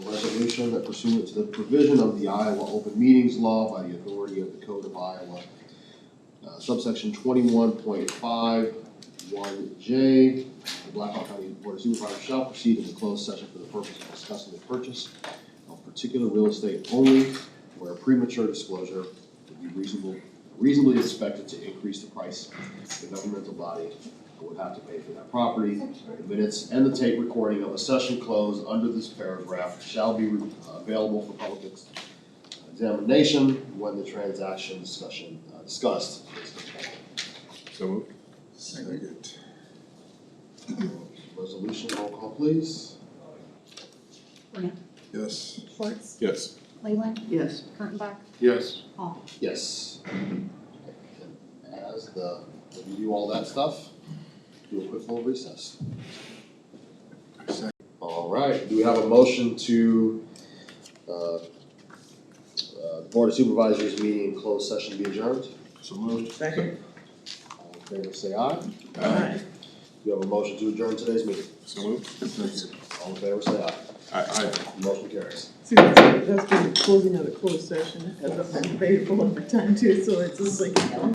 resolution that pursuant to the provision of the Iowa Open Meetings Law by the authority of the Code of Iowa, uh, subsection twenty-one point five one J, the Blackhawk County Board of Supervisors shall proceed in the closed session for the purpose of discussing the purchase of particular real estate only where premature disclosure would be reasonable, reasonably expected to increase the price the governmental body would have to pay for that property. The minutes and the tape recording of a session closed under this paragraph shall be uh, available for public ex- examination when the transaction discussion, uh, discussed is completed. So moved. Second. Resolution, roll call please. Yes. Schwartz, Yes. Leyland, Yes. Kurttenbach, Yes. Hall. Yes. As the, when you do all that stuff, do a quick little recess. Second. All right, do we have a motion to, uh, uh, Board of Supervisors meeting in closed session be adjourned? So moved. Second. All in favor, say aye. Aye. Do you have a motion to adjourn today's meeting? So moved. Second. All in favor, say aye. Aye. Motion carries. See, that's, that's been closing of the closed session, as I've been paid for overtime too, so it's just like.